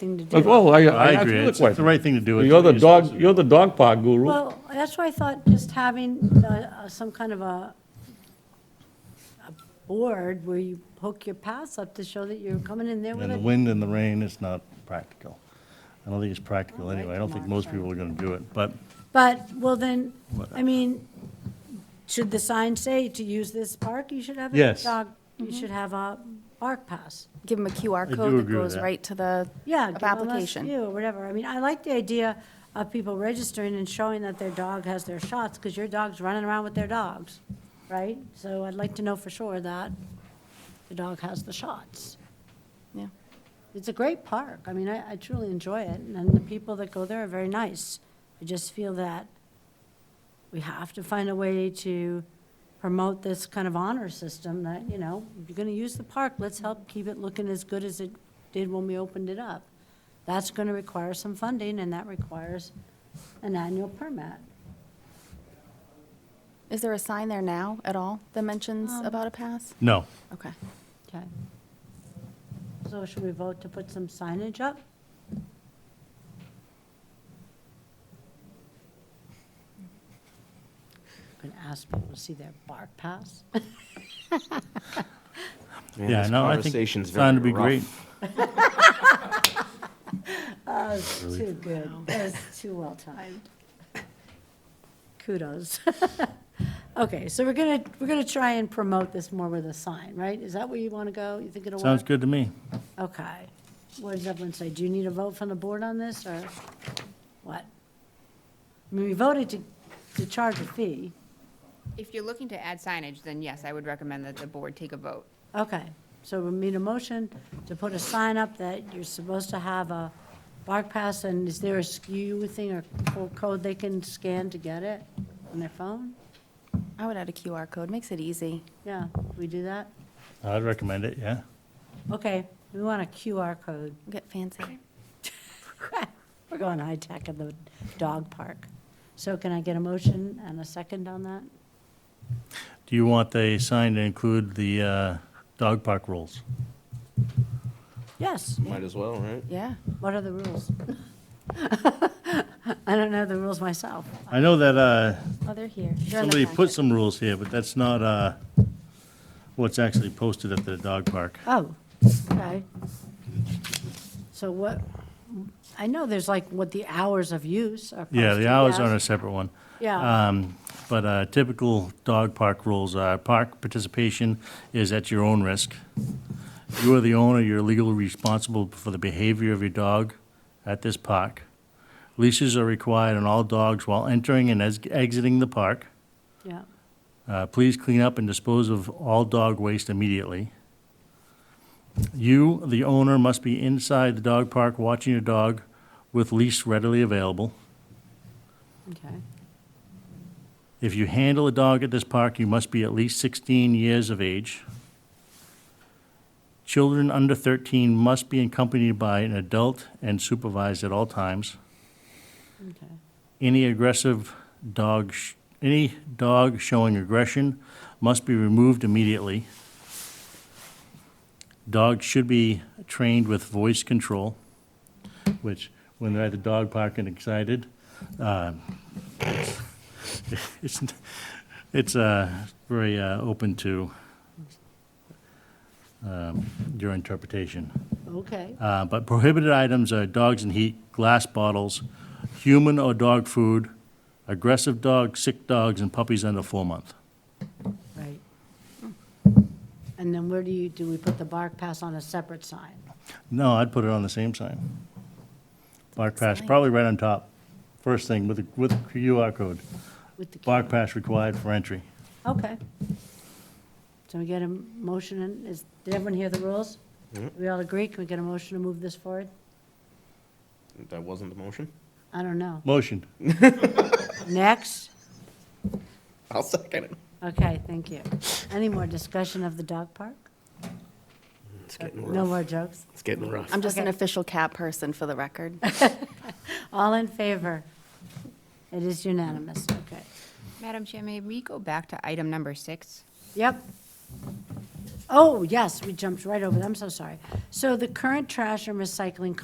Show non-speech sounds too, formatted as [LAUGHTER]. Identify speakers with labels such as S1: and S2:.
S1: thing to do.
S2: Well, I, I
S3: I
S2: I
S3: agree.
S2: feel
S3: It's
S2: that
S3: the
S2: way.
S3: right thing to do.
S2: You're the dog, you're the dog park guru.
S1: Well, that's why I thought just having uh, some kind of a, a board where you hook your pass up to show that you're coming in there with
S3: And the
S1: it.
S3: wind and the rain is not practical. I don't think it's practical
S1: All right,
S3: anyway. I don't think
S1: tomorrow,
S3: most
S1: sorry.
S3: people are going to do it, but
S1: But, well then, I mean, should the sign say to use this park? You should have a
S3: Yes.
S1: dog, you should have a park pass.
S4: Give them a QR
S3: do
S4: code
S3: agree
S4: that
S3: with
S4: goes
S3: that.
S4: right to the
S1: Yeah.
S4: app
S1: give 'em a
S4: application.
S1: few Or whatever. I mean, I like the idea of people registering and showing that their dog has their shots, because your dog's running around with their dogs, right? So I'd like to know for sure that the dog has the shots.
S4: Yeah.
S1: It's a great park. I mean, I, I truly enjoy it, and then the people that go there are very nice. I just feel that we have to find a way to promote this kind of honor system that, you know, if you're gonna use the park, let's help keep it looking as good as it did when we opened it up. That's gonna require some funding, and that requires an annual permit.
S4: Is there a sign there now at all that mentions
S1: Um,
S4: about a pass?
S3: no.
S4: Okay.
S1: Okay. So should we vote to put some signage up? Going to ask people to see their bark pass? [LAUGHS]
S5: Man,
S3: Yeah,
S5: this
S3: no, I think
S5: conversation's
S3: it's going to
S5: very
S3: be great.
S5: rough.
S1: Too good. That was too well timed. Kudos. [LAUGHS] Okay, so we're going to, we're going to try and promote this more with a sign, right? Is that where you want to go? You think it'll work?
S3: Sounds good to me.
S1: Okay. What does everyone say? Do you need a vote from the board on this, or what? I mean, we voted to, to charge a fee.
S6: If you're looking to add signage, then yes, I would recommend that the board take a vote.
S1: Okay, so we need a motion to put a sign up that you're supposed to have a bark pass, and is there a SKU thing or co- code they can scan to get it on their phone?
S4: I would add a QR code. Makes it easy.
S1: Yeah, we do that?
S3: I'd recommend it, yeah.
S1: Okay, we want a QR code. [LAUGHS]
S4: Get fancy.
S1: We're going high tech at the dog park. So can I get a motion and a second on that?
S3: Do you want the sign to include the uh, dog park rules?
S1: Yes.
S5: Might as well, right?
S4: Yeah.
S1: What are the rules? [LAUGHS] I don't know the rules myself.
S3: I know that uh,
S4: Oh, they're here. They're in the
S3: somebody put
S4: packet.
S3: some rules here, but that's not uh, what's actually posted at the dog park.
S1: Oh, okay. So what, I know there's like what the hours of use are.
S3: Yeah,
S1: posted
S3: the hours
S1: as.
S3: are on a separate one.
S1: Yeah,
S3: Um, But uh, typical dog park rules are, park participation is at your own risk. You are the owner, you're legally responsible for the behavior of your dog at this park. Leashes are required on all dogs while entering and ex- exiting the park.
S1: yeah,
S3: Uh, Please clean up and dispose of all dog waste immediately. You, the owner, must be inside the dog park watching your dog with leash readily available.
S1: okay.
S3: If you handle a dog at this park, you must be at least 16 years of age. Children under 13 must be accompanied by an adult and supervised at all times.
S1: Okay.
S3: Any aggressive dog, sh- any dog showing aggression must be removed immediately. Dogs should be trained with voice control, which, when they're at the dog park and excited, uh, [LAUGHS] it's, it's uh, very uh, open to um, your interpretation.
S1: Okay,
S3: Uh, But prohibited items are dogs and heat, glass bottles, human or dog food, aggressive dogs, sick dogs, and puppies under four month.
S1: right. And then where do you, do we put the bark pass on a separate sign?
S3: No, I'd put it on the same sign. Bark Pass,
S4: Sign.
S3: probably right on top, first thing with, the- with QR code.
S1: With the
S3: Bark Pass required for entry.
S1: Okay. So we get a motion, and is, did everyone hear the rules? We all agree? Can we get a motion to move this forward?
S5: That wasn't the motion?
S1: I don't know.
S3: Motion.
S1: Next?
S5: I'll second it.
S1: Okay, thank you. Any more discussion of the dog park?
S5: It's getting
S1: No
S5: rough.
S1: more jokes?
S5: It's getting rough.
S4: I'm just an
S1: Okay.
S4: official cat person for the record.
S1: All in favor? It is unanimous, okay.
S6: Madam Chair, may we go back to item number six?
S1: Yep. Oh, yes, we jumped right over, it. I'm so sorry. So the current trash and recycling